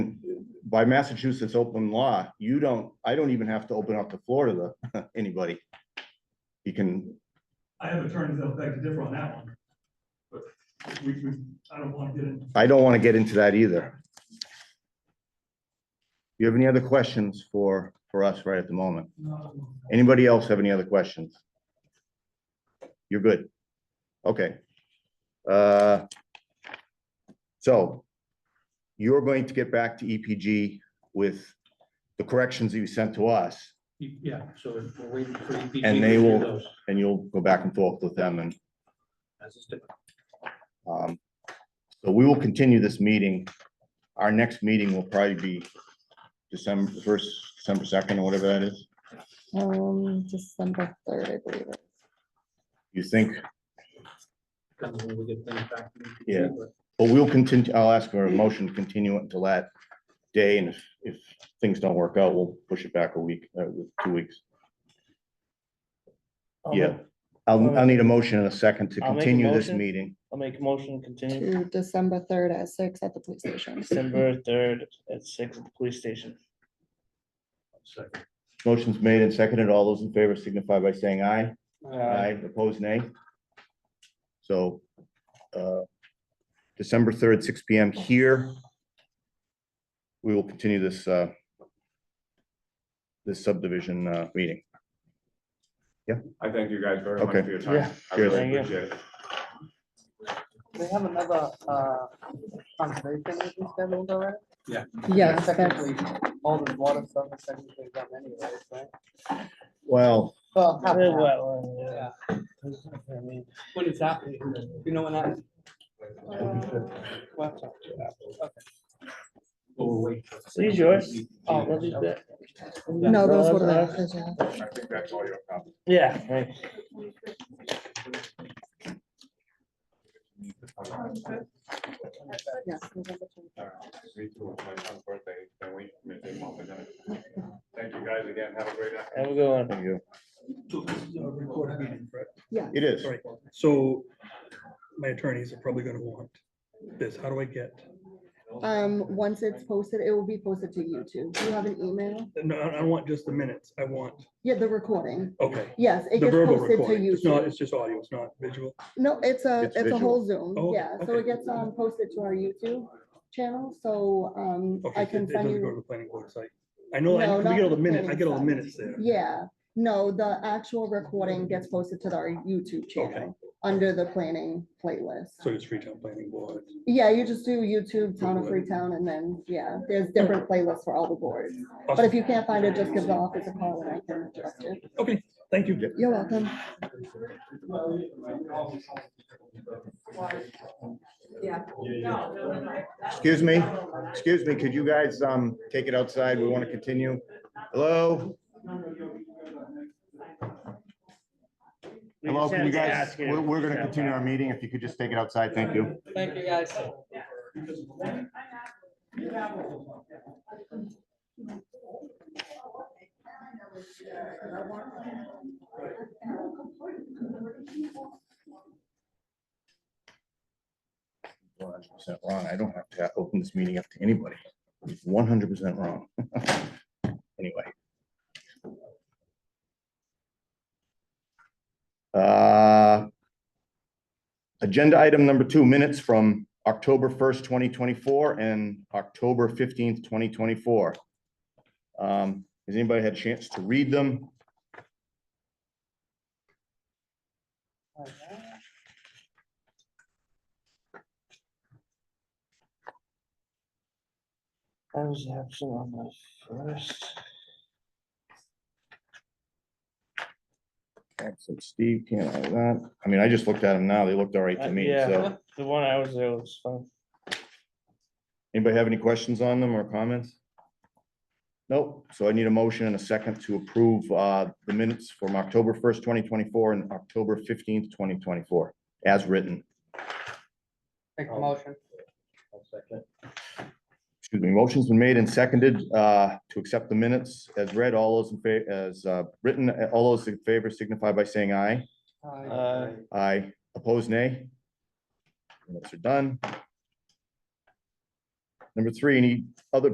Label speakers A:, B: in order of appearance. A: by Massachusetts open law, you don't, I don't even have to open up to Florida to anybody. You can,
B: I have attorneys that'll beg to differ on that one. But we, we, I don't want to get into,
A: I don't want to get into that either. You have any other questions for, for us right at the moment?
B: no,
A: Anybody else have any other questions? You're good. Okay. Uh, So you're going to get back to EPG with the corrections that you sent to us
C: Yeah, so if we're waiting for. EPG
A: And
C: to
A: they
C: do
A: will-
C: those,
A: and you'll go back and forth with them and
C: as it's different.
A: um, so we will continue this meeting. Our next meeting will probably be December first, December second or whatever that is.
D: Um, December third, I believe. it.
A: You think,
C: Depends when we get things back. from EPG,
A: Yeah.
C: but
A: but we'll continue, I'll ask for a motion to continue it until that day and if, if things don't work out, we'll push it back a week, uh, with two weeks. Yeah, I'll, I'll need a motion and a second to
E: I'll make a
A: continue this
E: motion.
A: meeting.
E: I'll make a motion, to continue
D: To December third at six at the police station.
E: December third at six at the police station.
C: second.
A: Motion's made and seconded. All those in favor signify by saying aye.
E: Uh,
A: Aye, opposed, nay. So, uh, December third, six P M here. We will continue this, uh, this subdivision, uh, meeting.
F: I thank you guys very
A: Okay.
F: much for your time.
E: Yeah.
F: I really
E: Thank you.
F: appreciate it.
G: They have another, uh, conservation meeting scheduled already?
D: Yes, that's,
G: Technically, all the water stuff is technically done anyways, right?
A: Well,
G: Well, half
E: Yeah,
G: and half,
E: well, uh, yeah.
G: yeah.
E: I mean,
G: When is that? You know when that is? What?
C: But we're waiting. for- E
E: These yours?
G: Oh,
E: Those are good.
D: no, those
E: No,
D: were
E: that's
D: the, yeah.
F: I think that's all your comments.
E: Yeah, right.
D: Yes, November 23rd.
F: All right. Me too. It's my son's birthday. Can't wait. Make him up and then- Thank you guys again. Have a great night.
E: Have a good one.
A: thank you.
B: so this is a recorded meeting, correct?
A: It is.
B: Right, so my attorneys are probably gonna want this, how do I get,
D: Um, once it's posted, it will be posted to YouTube. Do you have an email?
B: no, I I don't want just the minutes, I want,
D: Yeah, the recording.
B: okay.
D: Yes, it
B: The
D: gets
B: verbal
D: posted to
B: recording, it's not,
D: YouTube.
B: it's just audio, it's not visual,
D: No, it's a,
A: It's
D: it's a whole Zoom.
B: Oh,
D: Yeah, so it
B: okay.
D: gets, um, posted to our YouTube channel, so, um,
B: okay,
D: I
B: it it
D: can send
B: doesn't
D: you.
B: go to the planning board site. I know, I
D: No,
B: we
D: not
B: get all
D: the
B: the minutes, I
D: planning
B: get all the
D: site.
B: minutes there.
D: Yeah, no, the actual recording gets posted to our YouTube channel under the planning playlist.
B: So it's Freetown Planning Board.
D: Yeah, you just do YouTube, Town of Freetown, and then, yeah, there's different playlists for all the boards. But if you can't find it, just give the office a call and I can direct you.
B: Okay, thank you.
D: You're welcome.
A: Excuse me, excuse me, could you guys, um, take it outside? We want to continue. Hello?
E: We
A: Hello,
E: just
A: can you
E: had to
A: guys,
E: ask you.
A: we're, we're gonna continue our meeting. If you could just take it outside, thank you.
G: Thank you, guys.
A: One hundred percent wrong. I don't have to open this meeting up to anybody. One hundred percent wrong. Anyway. Uh, Agenda item number two, minutes from October first, twenty twenty-four and October fifteenth, twenty twenty-four. Um, Has anybody had a chance to read them?
E: I was absent on the first.
A: Absent Steve, can't have that. I mean, I just looked at them now. They looked all right
E: Uh,
A: to me,
E: yeah.
A: so.
E: The one I was there was fun.
A: Anybody have any questions on them or comments? Nope. So I need a motion and a second to approve uh, the minutes from October first, twenty twenty-four and October fifteenth, twenty twenty-four, as written.
G: Make a motion.
C: I'll second.
A: Excuse me, motion's been made and seconded uh, to accept the minutes as read. All those in favor, as uh, written, uh, all those in favor signify by saying aye.
G: Uh,
E: Uh,
A: Aye. Opposed, nay? Minutes are done. Number three, any other